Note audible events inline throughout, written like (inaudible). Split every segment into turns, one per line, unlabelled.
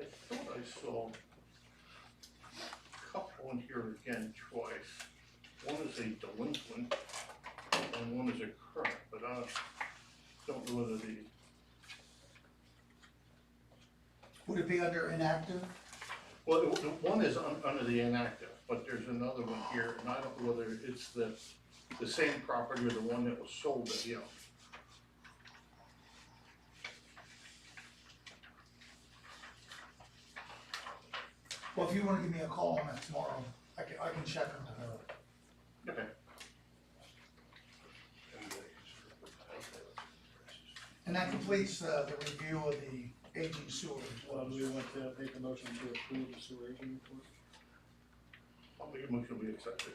I saw a couple in here again twice. One is a delinquent and one is a current, but I don't know whether the,
Would it be under inactive?
well, the the one is un- under the inactive, but there's another one here, and I don't know whether it's the, the same property or the one that was sold at Yelp.
Well, if you wanna give me a call on that tomorrow, I can, I can check on tomorrow.
Okay.
And that completes, uh, the review of the aging sewer.
Well, do we want to make a motion to approve the sewer agent report?
I'll make a motion, we accept it.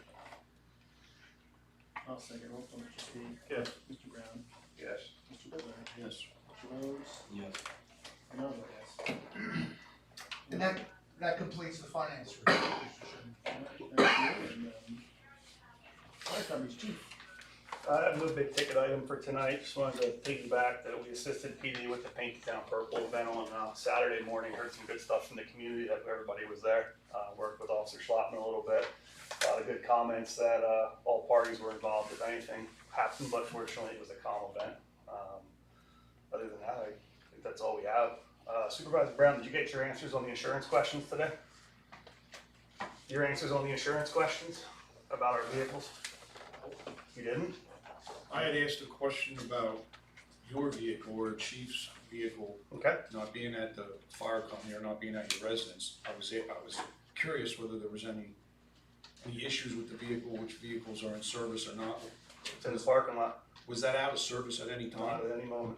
I'll second, roll call, Mr. Speed.
Yes.
Mr. Brown.
Yes.
Mr. Blair. Yes. Mr. Rhodes.
Yes.
And I'll vote yes.
And that, that completes the finance review. Mr. Chairman.
Thank you, and, um, Fire company's chief.
Uh, no big ticket item for tonight, just wanted to take you back that we assisted PD with the Paint the Town Purple event on, uh, Saturday morning, heard some good stuff from the community, that everybody was there. Uh, worked with Officer Schlappman a little bit, a lot of good comments that, uh, all parties were involved, if anything happened, but fortunately, it was a calm event. Um, Other than that, I think that's all we have. Uh, Supervisor Brown, did you get your answers on the insurance questions today? Your answers on the insurance questions about our vehicles? You didn't?
I had asked a question about your vehicle or chief's vehicle
Okay.
not being at the fire company or not being at your residence. I was, I was curious whether there was any, any issues with the vehicle, which vehicles are in service or not.
It's in the parking lot,
Was that out of service at any
not
time?
at any moment.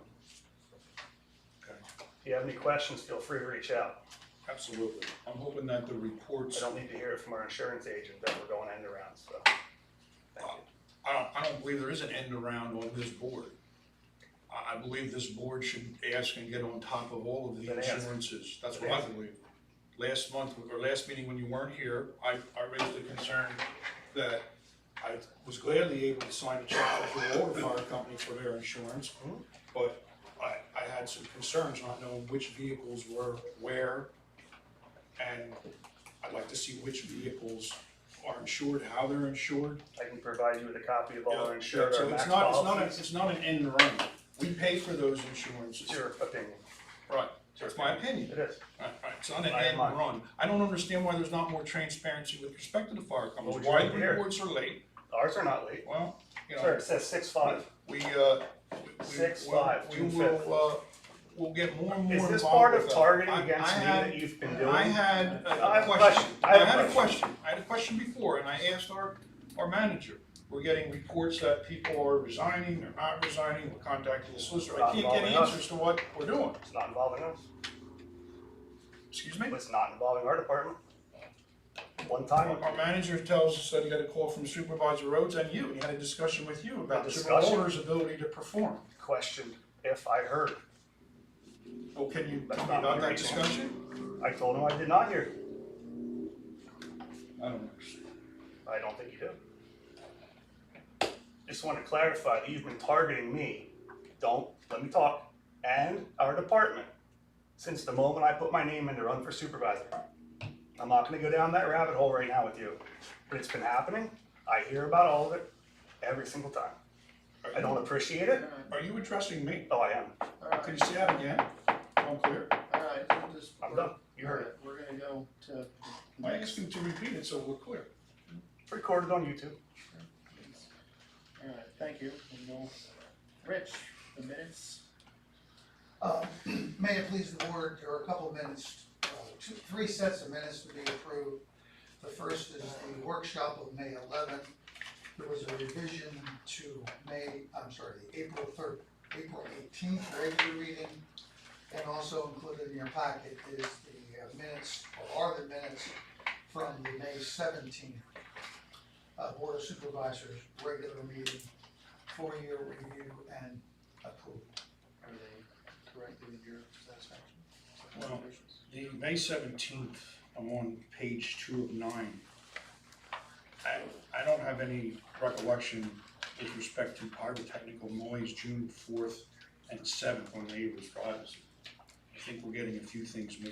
Okay.
If you have any questions, feel free to reach out.
Absolutely. I'm hoping that the
I
reports,
don't need to hear it from our insurance agent that we're going end around, so. Thank you.
I don't, I don't believe there is an end around on this board. I, I believe this board should ask and get on top of all of the
Then ask.
insurances. That's
Then
what I
ask.
believe. Last month, or last meeting when you weren't here, I, I raised the concern that I was gladly able to sign a check for all the fire company for their insurance.
Mhm.
But I, I had some concerns not knowing which vehicles were where. And I'd like to see which vehicles are insured, how they're insured.
I can provide you with a copy of all our insured, our
So it's
max
not, it's not, a-
policies.
it's not an end run. We pay for those insurances.
It's your opinion.
Right, that's my opinion.
It is.
Right, right, It's not an
I
end
am mine.
run. I don't understand why there's not more transparency with respect to the fire
What would
companies,
you
why
like
the
to hear?
reports are late.
Ours are not late.
Well, you
Sir,
know,
it says six five.
we, uh, we- we-
Six,
we'll-
five, two
We
fifty.
will, uh, we'll get more and more
Is
involved
this part of
with that.
targeting
I-
against
I
me
had-
that you've been
I
doing?
had
I
a
have a
question,
question.
I had a question, I had a question before, and I asked our, our manager. We're getting reports that people are resigning, they're not resigning, we're contacting the solicitor, I
Not
can't get
involving us.
answers to what we're doing,
It's not involving us.
excuse me?
It's not involving our department. One time.
Our manager tells us that he got a call from Supervisor Rhodes and you, and he had a discussion with you about the
Discussion?
supervisor's ability to perform.
questioned if I heard.
Well, can you
That's
tell me
not
about
my
that
reason.
discussion?
I told him I did not hear.
I don't understand.
I don't think you do. Just want to clarify that you've been targeting me. Don't, let me talk, and our department, since the moment I put my name in to run for supervisor. I'm not gonna go down that rabbit hole right now with you, but it's been happening. I hear about all of it every single time. I don't appreciate it.
Are you addressing me?
Oh, I am.
Alright,
Can you say that again? Unclear.
alright, I'm just.
I'm done. You heard it.
We're gonna go to.
I asked him to repeat it so we're clear.
It's recorded on YouTube.
Alright, thank you, and we'll, Rich, the minutes,
Uh, (clears throat) May it please the board, there are a couple of minutes, uh, two, three sets of minutes to be approved. The first is the workshop of May eleventh. There was a revision to May, I'm sorry, the April third, April eighteenth regular reading. And also included in your packet is the uh, minutes, or are the minutes from the May seventeenth uh, Board of Supervisors regular meeting, four-year review and approval.
everything correctly with your satisfaction?
Well- The May seventeenth, I'm on page two of nine. I, I don't have any recollection with respect to pyrotechnical noise June fourth and seventh on neighbor's privacy. I think we're getting a few things mixed